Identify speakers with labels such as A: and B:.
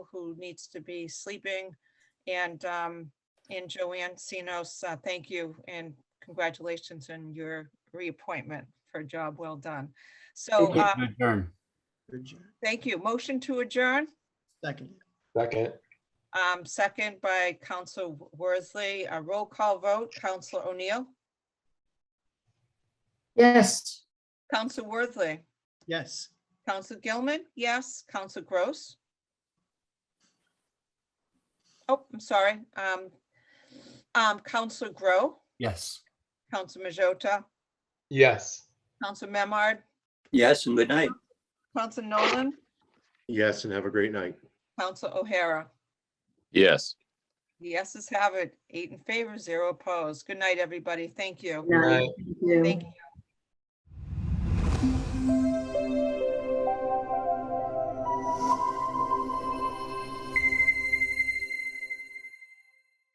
A: who needs to be sleeping. And, um, and Joanne Sinos, uh, thank you and congratulations on your reappointment for a job well done. So, uh,
B: Adjourn.
A: thank you. Motion to adjourn,
C: Second,
D: Second,
A: um, second by Council Worsley, a roll call vote, Council O'Neill,
E: Yes,
A: Council Worsley,
C: yes.
A: Council Gilman, yes, Council Gross. Oh, I'm sorry, um, um, Council Grow,
B: Yes.
A: Council Majota,
D: yes.
A: Council Memard,
F: Yes, and good night.
A: Council Nolan,
D: Yes, and have a great night.
A: Council O'Hara.
G: Yes.
A: The Yeses have it, eight in favor, zero opposed. Good night, everybody. Thank you.
E: no, thank you.
A: Thank you.